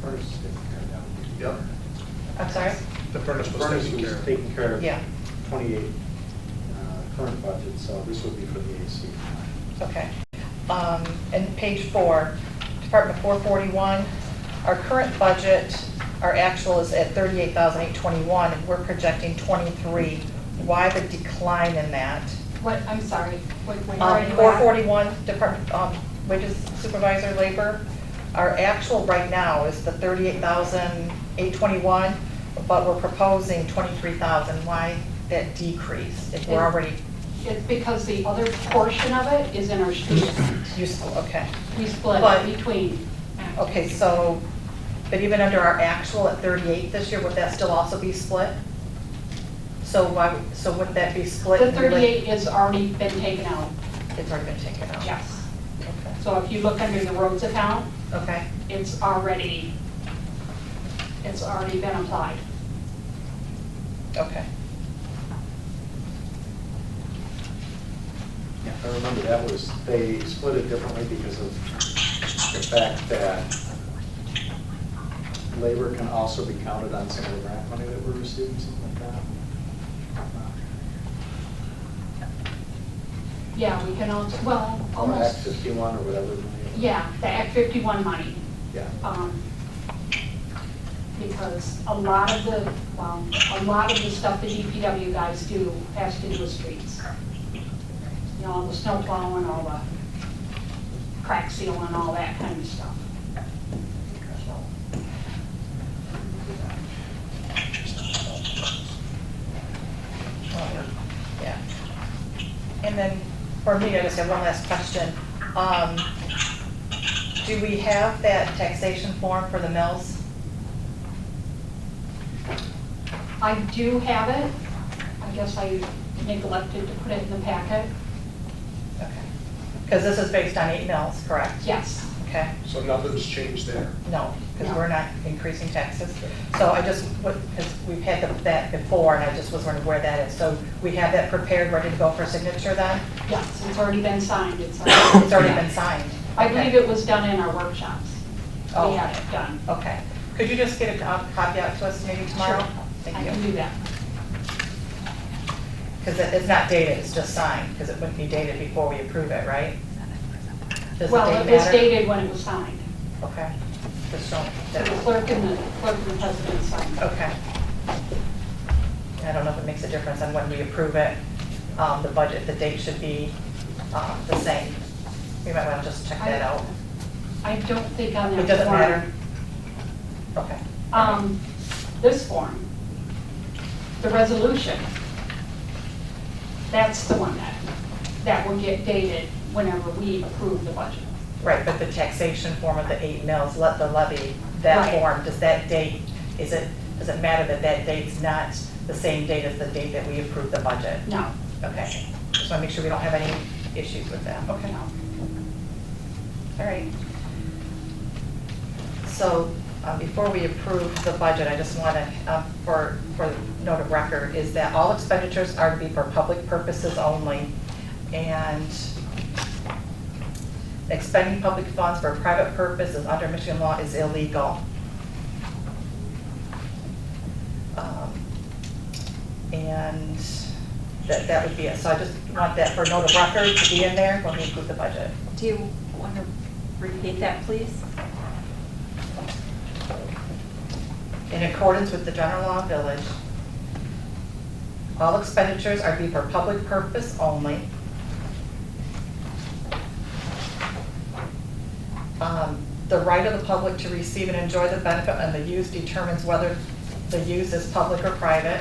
furnace is taken care of now. Yep. I'm sorry? The furnace The was furnace taken care was of. taken care of. Yeah. Twenty-eight, uh, current budget, so this would be for the AC. Okay. Um, And page four, Department 441, our current budget, our actual is at 38,821, and we're projecting 23. Why the decline in that? What, I'm sorry, what, where are Um, you at? 441, Department, um, wages supervisor labor, our actual right now is the 38,821, but we're proposing 23,000. Why that decrease if we're already It's because the other portion of it is in our street. useful? Okay. We split But- it between. Okay, so, but even under our actual at 38 this year, would that still also be split? So why, so would that be split? The in rela- 38 has already been taken out, It's already been taken out? yes. Okay. So if you look under the roads account, Okay, it's already, it's already been applied. okay. Yeah, I remember that was, they split it differently because of the fact that labor can also be counted on some of the grant money that we're receiving, something like that. Uh, Yeah, we can also, well, Or Act almost, fifty-one or whatever. the money is. yeah, the Act 51 money. Yeah. um, Because a lot of the, well, a lot of the stuff the DPW guys do has to do with streets. You know, all the snow plowing, all the crack sealing, all that kind of stuff. Well, Yeah. And then, for me, I just have one last question. Um, Do we have that taxation form for the mills? I do have it. I guess I neglected to put it in the packet. Okay. Because this is based on eight mills, correct? Yes. Okay. So nothing's changed there. No, because No. we're not increasing taxes. So I just, because we've had the- that before, and I just was wondering where that is. So we have that prepared, ready to go for signature then? Yes, it's already been signed. It's uh, It's already been signed? I believe it was done in our workshops. Oh. We had it done. Okay. Could you just get a co- copy out to us maybe tomorrow? Sure. I Thank can you. do that. Because it's not dated, it's just signed, because it wouldn't be dated before we approve it, right? Does the Well, date it was matter? dated when it was signed. Okay. Just don't, The that- clerk and the, clerk and the president signed. it. Okay. I don't know if it makes a difference on when we approve it. Um, The budget, the date should be um, the same. We might want to just check that out. I don't think on that form. It doesn't matter. Okay. Um, this form, the resolution, that's the one that, that will get dated whenever we approve the budget. Right, but the taxation form of the eight mills, let the levy, that Right. form, does that date, is it, does it matter that that date's not the same date as the date that we approve the budget? No, Okay. Just want to make sure we don't have any issues with that. Okay. no. All right. So uh, before we approve the budget, I just want to, for, for note of record, is that all expenditures are to be for public purposes only. And expending public funds for private purposes under Michigan law is illegal. Um, And that, that would be it. So I just want that for note of record to be in there when we approve the budget. Do you want to repeat that, please? In accordance with the general law of village, all expenditures are to be for public purpose only. Um, The right of the public to receive and enjoy the benefit and the use determines whether the use is public or private.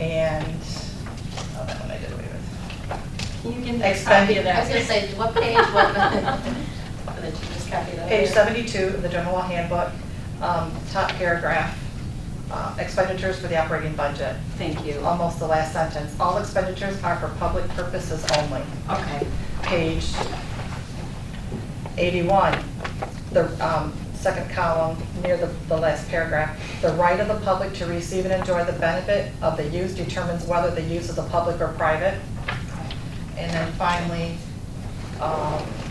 And, oh, that one I did away with. Can you give me a copy of that? I was gonna say, what page, what, but then just copy that. Page 72 of the general law handbook, um, top paragraph, uh, expenditures for the operating budget. Thank you. almost the last sentence. All expenditures are for public purposes only. Okay. Page 81, the um, second column, near the the last paragraph. The right of the public to receive and enjoy the benefit of the use determines whether the use is a public or private. And then finally, um,